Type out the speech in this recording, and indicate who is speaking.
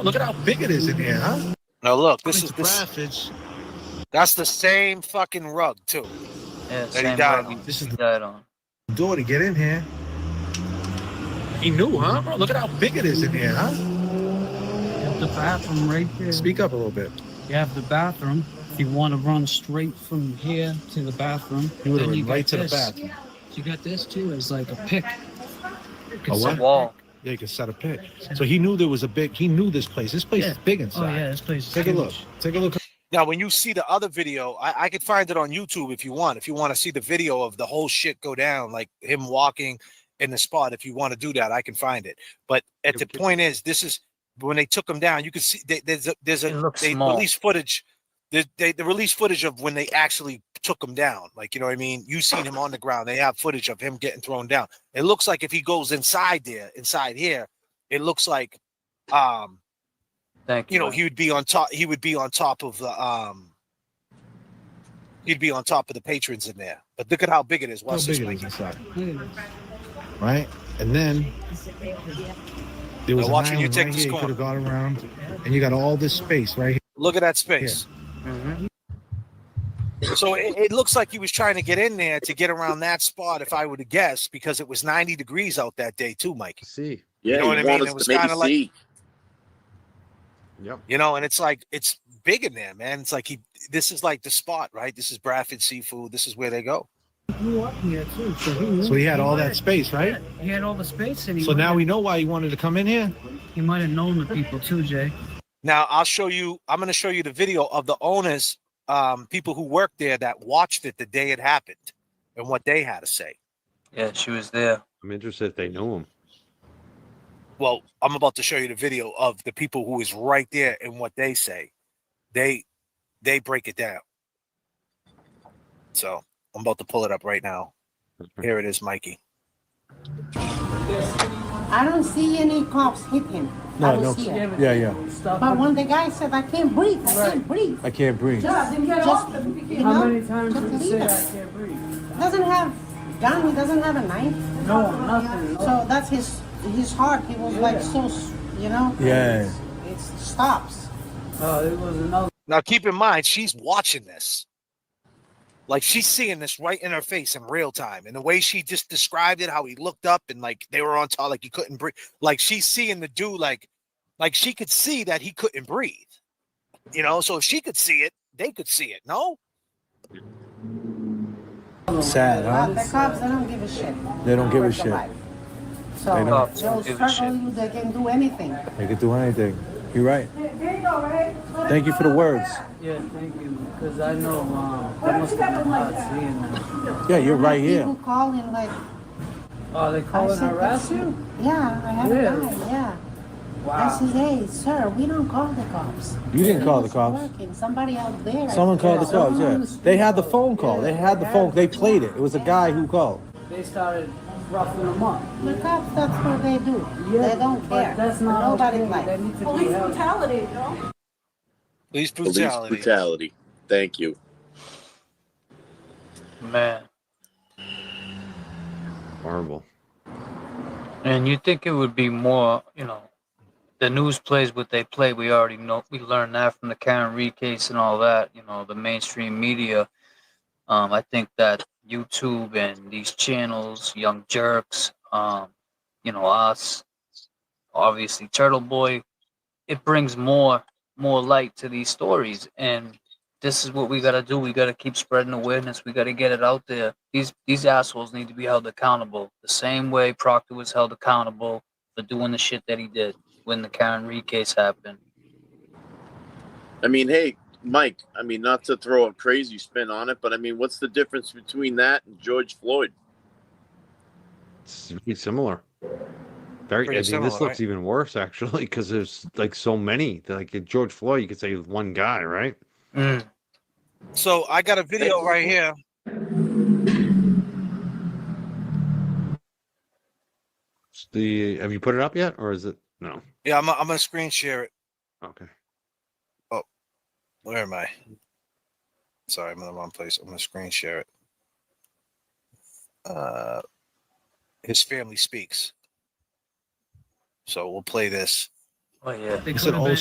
Speaker 1: Oh, Look at how big it is in here, huh?
Speaker 2: No, look, this
Speaker 1: This
Speaker 2: is this.
Speaker 1: graphics.
Speaker 2: That's the same fucking rug too.
Speaker 3: Yeah,
Speaker 2: he
Speaker 3: same
Speaker 2: died.
Speaker 3: one.
Speaker 1: This is
Speaker 3: He died on.
Speaker 1: Door to get in here. He knew, huh? Bro, look at how big it is in here, huh?
Speaker 4: You have the bathroom right there.
Speaker 1: Speak up a little bit.
Speaker 4: You have the bathroom. If you want to run straight from here to the bathroom,
Speaker 1: You would have
Speaker 4: then
Speaker 1: been
Speaker 4: got
Speaker 1: right to the
Speaker 4: this.
Speaker 1: bathroom.
Speaker 4: You got this too as like a pick.
Speaker 1: A
Speaker 3: It's a
Speaker 1: what?
Speaker 3: wall.
Speaker 1: Yeah, you could set a pick. So he knew there was a big. He knew this place. This place is big
Speaker 4: Oh
Speaker 1: inside.
Speaker 4: yeah, this place. is
Speaker 1: Take a
Speaker 4: huge.
Speaker 1: look. Take a look.
Speaker 2: Now, when you see the other video, I, I could find it on YouTube if you want. If you want to see the video of the whole shit go down, like him walking in the spot, if you want to do that, I can find it. But at the point is, this is when they took him down. You can see they, there's a there's
Speaker 3: It
Speaker 2: a
Speaker 3: looks
Speaker 2: they
Speaker 3: small.
Speaker 2: release footage. They, they, they release footage of when they actually took him down. Like you know what I mean. You seen him on the ground. They have footage of him getting thrown down. It looks like if he goes inside there, inside here, it looks like, um,
Speaker 3: Thank you.
Speaker 2: you know, he would be on top. He would be on top of the um. He'd be on top of the patrons in there. But look at how big it is.
Speaker 1: How
Speaker 2: Watch this.
Speaker 1: big it is
Speaker 2: Mikey.
Speaker 1: inside,
Speaker 4: Look at
Speaker 1: right? And then there was
Speaker 2: Now
Speaker 1: an
Speaker 2: watch when you
Speaker 1: island
Speaker 2: take
Speaker 1: right here.
Speaker 2: this
Speaker 1: You
Speaker 2: corner.
Speaker 1: could have gone around, and you got all this space right here.
Speaker 2: Look at that space. Mm-hmm.
Speaker 3: Mhm.
Speaker 2: So it, it looks like he was trying to get in there to get around that spot, if I were to guess, because it was 90 degrees out that day too, Mike.
Speaker 5: See.
Speaker 6: Yeah,
Speaker 2: know what I
Speaker 6: he
Speaker 2: mean?
Speaker 6: wanted
Speaker 2: It was
Speaker 6: to make
Speaker 2: kinda
Speaker 6: it
Speaker 2: like-
Speaker 6: see.
Speaker 5: Yep.
Speaker 2: You know, and it's like it's big in there, man. It's like he. This is like the spot, right? This is Bradford Seafood. This is where they go.
Speaker 4: this. Grew up here too, so he knew-
Speaker 1: So he had all that space, right?
Speaker 4: He had all the space, and he.
Speaker 1: So now
Speaker 4: might
Speaker 1: we know why he wanted to come in here.
Speaker 4: have- he might have known the people too, Jay.
Speaker 2: Now I'll show you. I'm going to show you the video of the owners, um, people who worked there that watched it the day it happened, and what they had to say.
Speaker 3: Yeah, she was there.
Speaker 5: I'm interested if they know him.
Speaker 2: Well, I'm about to show you the video of the people who is right there and what they say. They they break it down. So I'm about to pull it up right now. Here it is, Mikey.
Speaker 7: I don't see any cops hit him. I don't see it.
Speaker 1: Yeah, yeah.
Speaker 7: But when the guy said, I can't breathe, I can't breathe.
Speaker 1: I can't breathe.
Speaker 7: Just, just, you know, How many times did you say I can't breathe? Doesn't have gun, he doesn't have a knife. No, nothing. So that's his, his heart, he was like so, s- you know?
Speaker 1: Yeah.
Speaker 7: It stops.
Speaker 4: Oh,
Speaker 2: Now keep in mind she's watching this. Like she's seeing this right in her face in real time. And the way she just described it, how he looked up and like they were on top, like he couldn't breathe. Like she's seeing the dude like like she could see that he couldn't breathe. You know, so if she could see it, they could see it. No?
Speaker 8: Sad,
Speaker 7: But
Speaker 8: huh?
Speaker 7: the cops, they don't give a shit.
Speaker 8: uh, They don't give a
Speaker 7: about your
Speaker 8: shit.
Speaker 7: life.
Speaker 8: They
Speaker 7: So
Speaker 3: don't.
Speaker 7: they'll
Speaker 3: Give a
Speaker 7: struggle
Speaker 3: shit.
Speaker 7: you, they can do anything.
Speaker 8: They could do anything. You're right. Thank you for the words.
Speaker 4: Yeah, thank you, because I know um, that must have been hot seeing them.
Speaker 8: Yeah, you're right
Speaker 7: People
Speaker 8: here.
Speaker 7: call in like,
Speaker 4: Oh, they
Speaker 7: I said, "That's you?" Yeah, I have a
Speaker 4: Really?
Speaker 7: guy, yeah. I said, hey, sir, we don't call the cops.
Speaker 8: You didn't call the
Speaker 7: Someone's
Speaker 8: cops.
Speaker 7: working. Somebody out there.
Speaker 8: Someone called the cops.
Speaker 7: Someone
Speaker 8: Yeah,
Speaker 7: who's-
Speaker 8: they had the phone call. They had the phone. They played it. It was a guy who called.
Speaker 4: They started roughing them up.
Speaker 7: The cops, that's what they do. They don't care. Nobody likes.
Speaker 4: need to
Speaker 9: Police brutality, no?
Speaker 2: Police
Speaker 6: Police
Speaker 2: brutality.
Speaker 6: brutality. Thank you.
Speaker 3: Man.
Speaker 5: Horrible.
Speaker 3: And you think it would be more, you know, the news plays what they play. We already know, we learned that from the Karen Reed case and all that, you know, the mainstream media. Um, I think that YouTube and these channels, Young Jerks, um, you know, us, obviously Turtle Boy, it brings more more light to these stories. And this is what we gotta do. We gotta keep spreading awareness. We gotta get it out there. These these assholes need to be held accountable the same way Proctor was held accountable for doing the shit that he did when the Karen Reed case happened.
Speaker 6: I mean, hey, Mike, I mean, not to throw a crazy spin on it, but I mean, what's the difference between that and George Floyd?
Speaker 5: It's pretty similar. Very.
Speaker 2: Pretty
Speaker 5: I mean,
Speaker 2: similar,
Speaker 5: this looks
Speaker 2: right?
Speaker 5: even worse actually because there's like so many. Like at George Floyd, you could say one guy, right?
Speaker 3: Mm.
Speaker 2: So I got a video right here.
Speaker 5: It's The have you put it up yet, or is it no?
Speaker 2: Yeah, I'm, I'm gonna screen share it.
Speaker 5: Okay.
Speaker 2: Where am I? Sorry, I'm in the wrong place. I'm gonna screen share it. Uh, his family speaks. So we'll play this.
Speaker 10: Oh yeah.
Speaker 4: They said
Speaker 3: coming
Speaker 4: all
Speaker 3: back.